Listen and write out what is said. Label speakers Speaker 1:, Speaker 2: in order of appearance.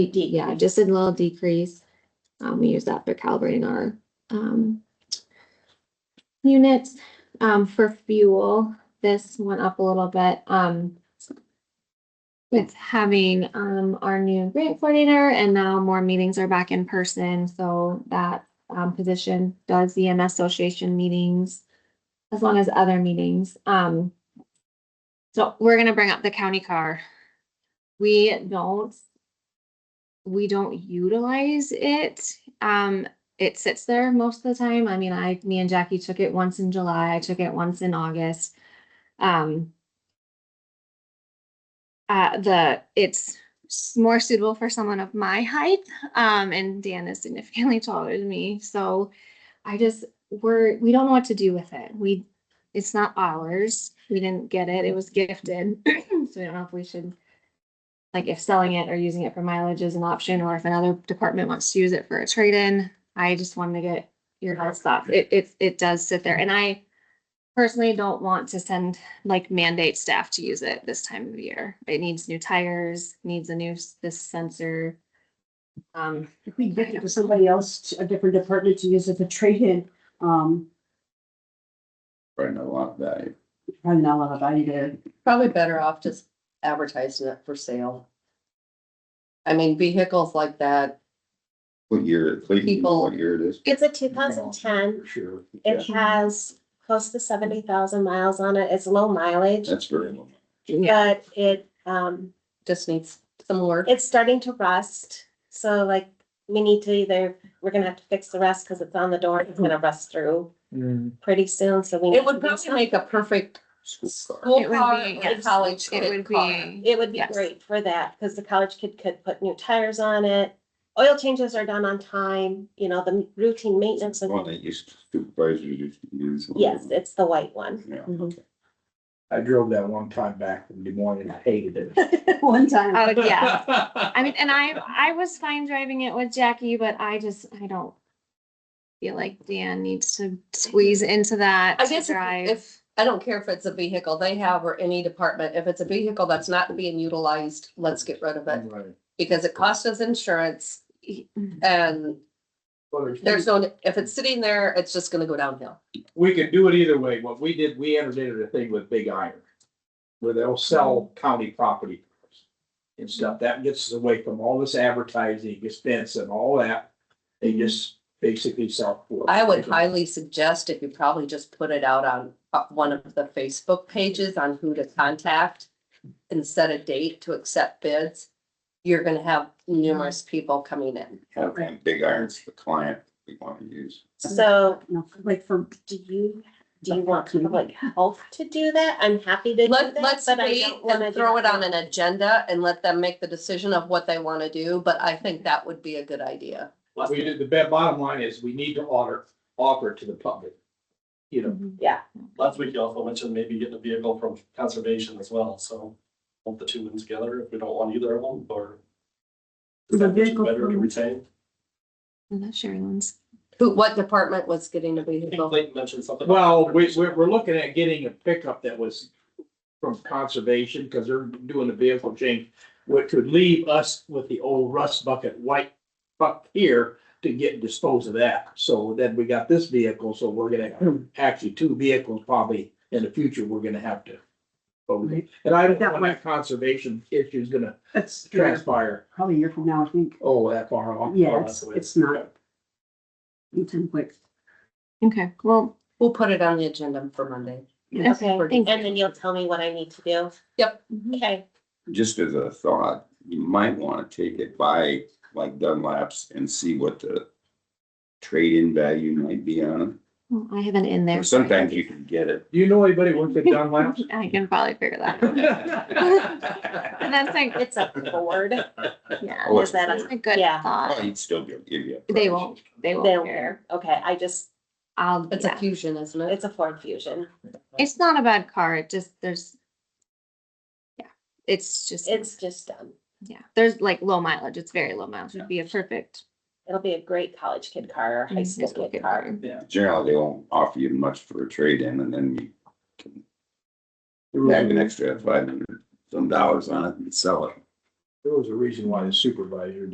Speaker 1: yeah, just a little decrease. Um, we use that for calibrating our, um, units. Um, for fuel, this went up a little bit, um, with having, um, our new grant coordinator and now more meetings are back in person, so that, um, position does the EMS Association meetings as long as other meetings. Um, so we're gonna bring up the county car. We don't we don't utilize it. Um, it sits there most of the time. I mean, I, me and Jackie took it once in July. I took it once in August. Um, uh, the, it's s- more suitable for someone of my height. Um, and Dan is significantly taller than me. So I just, we're, we don't know what to do with it. We, it's not ours. We didn't get it. It was gifted. So I don't know if we should like if selling it or using it for mileage is an option, or if another department wants to use it for a trade-in. I just wanted to get your guys' thoughts. It, it, it does sit there, and I personally don't want to send, like mandate staff to use it this time of year. It needs new tires, needs a new, s- this sensor. Um,
Speaker 2: If we give it to somebody else, to a different department to use as a trade-in, um,
Speaker 3: Right, not a lot of value.
Speaker 2: probably not a lot of value to.
Speaker 4: Probably better off just advertising it for sale. I mean, vehicles like that,
Speaker 3: What year, it- what year-
Speaker 4: People-
Speaker 3: what year it is?
Speaker 5: It's a two thousand ten.
Speaker 3: Sure.
Speaker 5: It has close to seventy thousand miles on it. It's low mileage,
Speaker 3: That's very low.
Speaker 1: yeah,
Speaker 5: but it, um,
Speaker 4: just needs some work.
Speaker 5: it's starting to rust. So like, we need to either, we're gonna have to fix the rust because it's on the door. It's gonna rust through
Speaker 6: Mm.
Speaker 5: pretty soon, so we. need
Speaker 4: It would
Speaker 5: to do
Speaker 4: probably make a perfect
Speaker 3: School car.
Speaker 4: school
Speaker 1: It would
Speaker 4: car
Speaker 1: be,
Speaker 4: or
Speaker 1: yes.
Speaker 4: college
Speaker 1: it would
Speaker 4: car.
Speaker 1: be,
Speaker 5: It would be
Speaker 1: Yes.
Speaker 5: great for that, because the college kid could put new tires on it. Oil changes are done on time, you know, the routine maintenance.
Speaker 3: One that
Speaker 5: and-
Speaker 3: used supervisors used to use.
Speaker 5: Yes, it's the white one.
Speaker 3: Yeah.
Speaker 6: I drove that one time back from Des Moines and I hated it.
Speaker 2: One time.
Speaker 5: Uh,
Speaker 1: oh, yeah. I mean, and I, I was fine driving it with Jackie, but I just, I don't feel like Dan needs to squeeze into that
Speaker 4: I
Speaker 1: to
Speaker 4: guess if-
Speaker 1: drive.
Speaker 4: if, I don't care if it's a vehicle they have or any department, if it's a vehicle that's not being utilized, let's get rid of it.
Speaker 6: Right.
Speaker 4: Because it costs us insurance
Speaker 1: Mm.
Speaker 4: and there's no, if it's sitting there, it's just gonna go downhill.
Speaker 6: We could do it either way. What we did, we entered into a thing with Big Iron. Where they'll sell county property. And stuff. That gets us away from all this advertising expense and all that. They just basically sell. for-
Speaker 4: Mm-hmm. I would highly suggest if you probably just put it out on uh, one of the Facebook pages on who to contact and set a date to accept bids, you're gonna have numerous people coming in.
Speaker 3: Have one big irons, the client we want to use.
Speaker 5: So
Speaker 2: No, like for,
Speaker 5: do you, do you want public health to do that? I'm happy to do that.
Speaker 4: Let, let's
Speaker 5: but I
Speaker 4: wait
Speaker 5: don't wanna
Speaker 4: and
Speaker 5: do
Speaker 4: throw it on an agenda and let them make the decision of what they wanna do, but I think that would be a good idea.
Speaker 6: We did, the ba- bottom line is we need to honor, offer it to the public. You know,
Speaker 1: Mm-hmm.
Speaker 5: Yeah,
Speaker 7: Last week you also mentioned maybe getting a vehicle from conservation as well, so lump the two in together if we don't want either of them, or. Is
Speaker 2: The
Speaker 7: that which is
Speaker 2: vehicle
Speaker 7: better to
Speaker 2: from-
Speaker 7: retain?
Speaker 1: And that's Sherlands.
Speaker 4: Who, what department was getting a
Speaker 7: I think
Speaker 4: vehicle?
Speaker 7: Clayton mentioned something.
Speaker 6: well, we, we're, we're looking at getting a pickup that was from conservation, because they're doing the vehicle change, which could leave us with the old rust bucket white buck here to get and dispose of that. So then we got this vehicle, so we're gonna, actually, two vehicles probably in the future, we're gonna have to.
Speaker 2: Right.
Speaker 6: And I don't
Speaker 2: That
Speaker 6: want that conservation issue is gonna
Speaker 2: that's
Speaker 6: transpire,
Speaker 2: probably a year from now, I think.
Speaker 6: oh, that far off.
Speaker 2: Yeah, it's, it's not. Anytime quick.
Speaker 1: Okay, well,
Speaker 4: We'll put it on the agenda for Monday.
Speaker 2: Yes.
Speaker 5: okay.
Speaker 4: Pretty.
Speaker 5: And then you'll tell me what I need to do. Mm-hmm.
Speaker 4: Yep.
Speaker 5: Okay,
Speaker 3: Just as a thought, you might want to take it by like Dunlap's and see what the trade-in value might be on
Speaker 1: well, I have an in
Speaker 3: it.
Speaker 1: there.
Speaker 3: Or
Speaker 1: so I can-
Speaker 3: Sometimes you can get it.
Speaker 6: Do you know anybody who works at Dunlap's?
Speaker 1: I can probably figure that out. And that's like,
Speaker 5: it's a Ford.
Speaker 1: yeah,
Speaker 3: Oh,
Speaker 1: is that
Speaker 3: it's-
Speaker 1: a good
Speaker 5: Yeah.
Speaker 3: Oh,
Speaker 1: thought?
Speaker 3: he'd still give you. a
Speaker 1: They
Speaker 3: price.
Speaker 1: won't, they
Speaker 5: They
Speaker 1: won't
Speaker 5: don't
Speaker 1: care.
Speaker 5: care. Okay, I just,
Speaker 1: I'll,
Speaker 4: It's a
Speaker 1: yeah.
Speaker 4: fusion, isn't it?
Speaker 5: it's a Ford Fusion.
Speaker 1: It's not a bad car, it just, there's. Yeah, it's just,
Speaker 5: It's just done.
Speaker 1: yeah, there's like low mileage, it's very low mileage,
Speaker 3: Yeah.
Speaker 1: it'd be a perfect.
Speaker 5: It'll be a great college kid car or Mm-hmm. high school
Speaker 1: school
Speaker 5: kid
Speaker 1: kid
Speaker 5: car.
Speaker 3: Generally, they won't offer you much for a trade-in and then you
Speaker 6: There
Speaker 3: Tag an extra five hundred some dollars on it and sell it.
Speaker 6: was a reason why the supervisor